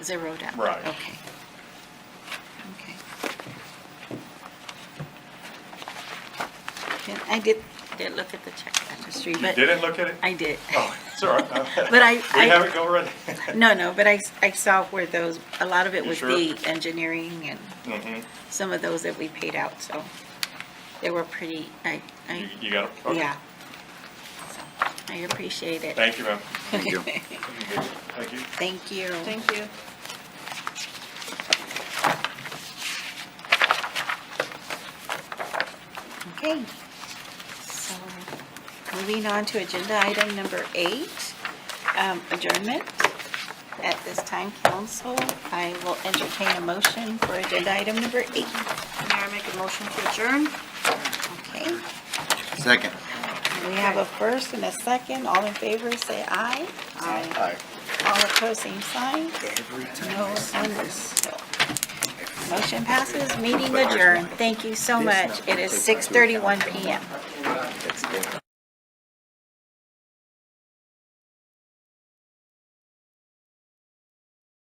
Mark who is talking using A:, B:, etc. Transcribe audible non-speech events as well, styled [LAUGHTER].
A: Zero down?
B: Right.
A: Okay. Okay. Then I did, did look at the check registry,
B: You
A: but.
B: didn't look at it?
A: I did.
B: Oh, it's all right.
A: But I- I-
B: We have it already.
A: [LAUGHS] No, no, but [LAUGHS] I, s- I saw where those, a lot of it
B: You
A: was
B: sure?
A: the engineering and
B: Mhm.
A: some of those that we paid out, so they were pretty, I,
B: You
A: I,
B: you got it? Okay.
A: yeah. So, I appreciate it.
B: Thank you, ma'am.
C: Thank you.
B: Thank you.
A: [LAUGHS] Thank you.
D: Thank you.
A: Okay. So, moving on to agenda item number eight, um, adjournment. At this time, council, I will entertain a motion for agenda item number eight.
D: May I make a motion to adjourn?
A: Okay,
C: Second.
A: we have a first and a second. All in favor, say aye. Aye. All opposed, same sign.
C: Every
A: No one
C: time.
A: is- no. Motion passes, meeting adjourned. Thank you so much. It is 6:31 PM.
C: That's different.